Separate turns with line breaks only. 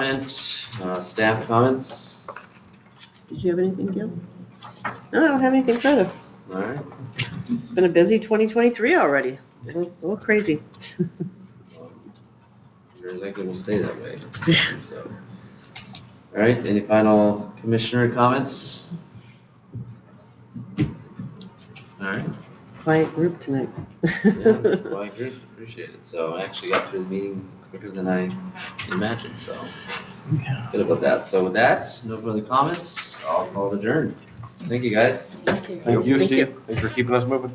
comment, uh, staff comments?
Did you have anything, Gil? No, I don't have anything further.
All right,
It's been a busy 2023 already. A little a little crazy.
you're likely will stay that way, so. All right, any final commissioner comments? All right,
Quiet group tonight.
yeah, well, I agree, appreciate it, so I actually got through the meeting quicker than I imagined, so. Good about that, so with that, no further comments, I'll call adjourned. Thank you, guys.
Okay.
Thank you,
Thank you.
Steve. Thanks for keeping us moving.